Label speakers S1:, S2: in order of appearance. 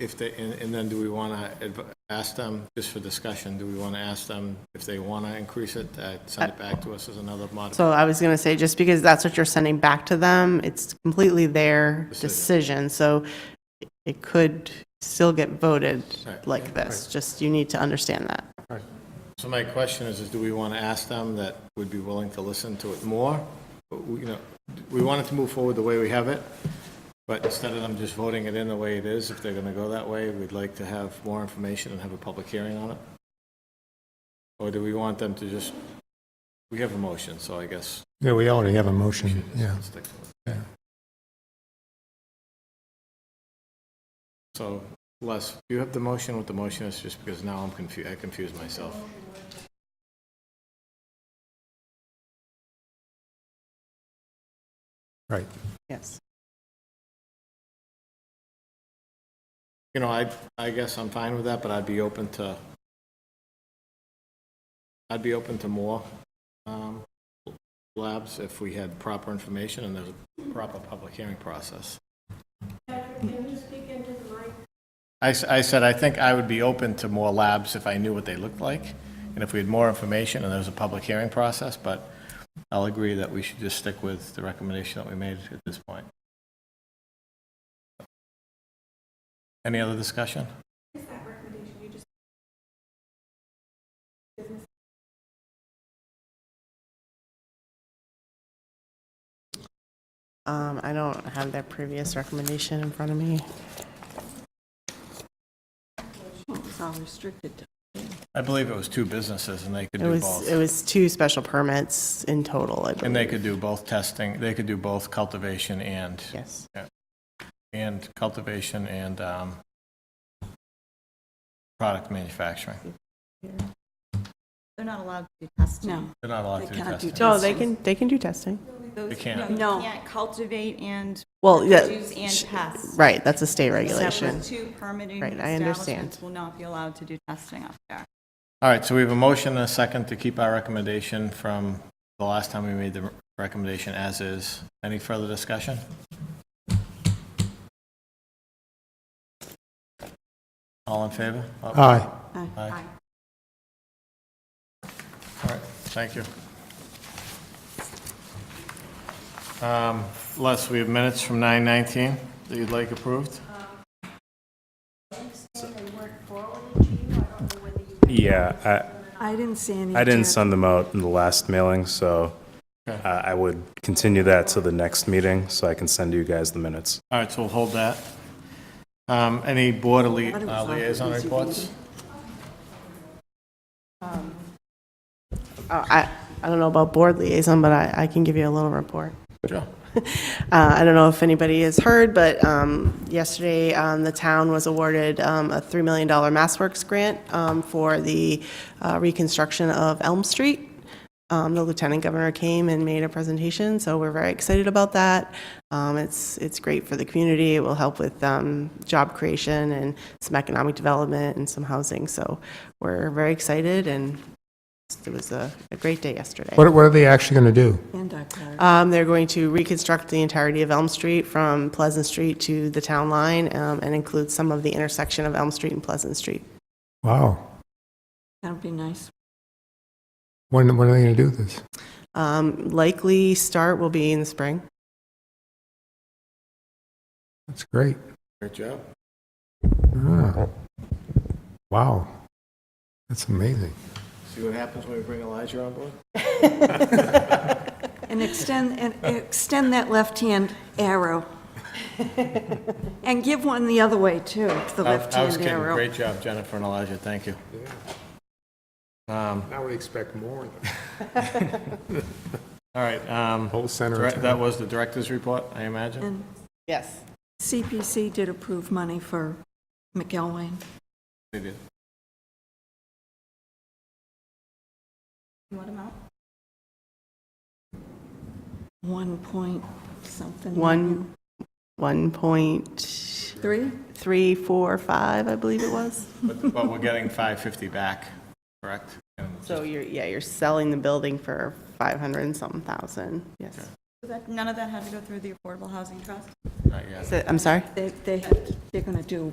S1: if they, and, and then do we want to ask them, just for discussion, do we want to ask them if they want to increase it, uh, send it back to us as another modification?
S2: So I was going to say, just because that's what you're sending back to them, it's completely their decision. So it could still get voted
S1: Right.
S2: like this. Just you need to understand that.
S1: So my question is, is do we want to ask them that would be willing to listen to it more? But we- You know, we wanted to move forward the way we have it, but instead of them just voting it in the way it is, if they're going to go that way, we'd like to have more information and have a public hearing on it? Or do we want them to just, we have a motion, so I guess
S3: Yeah, we already have a motion, yeah.
S1: stick to it.
S3: yeah.
S1: So Les, you have the motion, what the motion is, just because now I'm confused, I confused myself.
S3: Right.
S2: Yes.
S1: You know, I, I guess I'm fine with that, but I'd be open to, I'd be open to more um, labs if we had proper information and there's a proper public hearing process. I, s- I said, I think I would be open to more labs if I knew what they looked like, and if we had more information and there was a public hearing process, but I'll agree that we should just stick with the recommendation that we made at this point. Any other discussion?
S2: Um, I don't have their previous recommendation in front of me.
S4: It's all restricted to
S1: I believe it was two businesses, and they could
S2: It
S1: do
S2: was,
S1: both.
S2: it was two special permits in total, I
S1: And they
S2: believe.
S1: could do both testing, they could do both cultivation and,
S2: Yes.
S1: and cultivation and um, product manufacturing.
S5: They're not allowed to do testing.
S4: No.
S1: They're not allowed to
S4: They
S1: do
S4: can't do
S1: testing.
S4: testing.
S2: No, they can, they can do testing.
S5: Those-
S1: They can't.
S4: No.
S5: You can't cultivate and
S2: Well, yeah,
S5: produce and pest.
S2: Right, that's a state
S5: Separate
S2: regulation.
S5: two permitting
S2: Right, I understand.
S5: establishments will not be allowed to do testing up there.
S1: All right, so we have a motion and a second to keep our recommendation from the last time we made the recommendation as is. Any further discussion? All in favor? All
S3: Aye.
S1: Aye. right, thank you. Um, Les, we have minutes from 9:19 that you'd like approved?
S6: Yeah,
S4: I didn't see any.
S6: I, I didn't
S4: Jack.
S6: send them out in the last mailing, so uh, I would continue that to the next meeting, so I can send you guys the minutes.
S1: All right, so we'll hold that. Um, Any board lia- uh, liaison reports?
S2: Uh, I, I don't know about board liaison, but I, I can give you a little report.
S1: Sure.
S2: Uh, I don't know if anybody has heard, but um, yesterday, um, the town was awarded um, a $3 million MassWorks grant um, for the uh, reconstruction of Elm Street. Um, The lieutenant governor came and made a presentation, so we're very excited about that. Um, It's, it's great for the community, it will help with um, job creation and some economic development and some housing, so we're very excited, and it was a a great day yesterday.
S3: What, what are they actually going to do?
S4: And our car.
S2: Um, they're going to reconstruct the entirety of Elm Street from Pleasant Street to the town line um, and include some of the intersection of Elm Street and Pleasant Street.
S3: Wow.
S4: That'd be nice.
S3: When, when are they going to do this?
S2: Um, likely start will be in the spring.
S3: That's great.
S1: Great job.
S3: Ah. Wow. That's amazing.
S1: See what happens when we bring Elijah on board?
S4: And extend, and extend that left-hand arrow. And give one the other way, too, the
S1: I- I was
S4: left-hand
S1: kidding.
S4: arrow.
S1: Great job, Jennifer and Elijah, thank you. Um,
S3: I would expect more.
S1: All right, um,
S3: Whole center
S1: direct-
S3: of
S1: that
S3: town.
S1: was the director's report, I imagine?
S4: And
S2: Yes.
S4: CPC did approve money for McElwain.
S1: They did.
S5: What amount?
S4: One point something.
S2: One, 1.345,
S4: Three?
S2: I believe it was.
S1: But but we're getting 550 back, correct? And
S2: So you're, yeah, you're selling the building for 500 and something thousand. Yes.
S5: So that- None of that had to go through the Affordable Housing Trust?
S1: Not yet.
S2: So- I'm sorry?
S4: They, they, they're going to do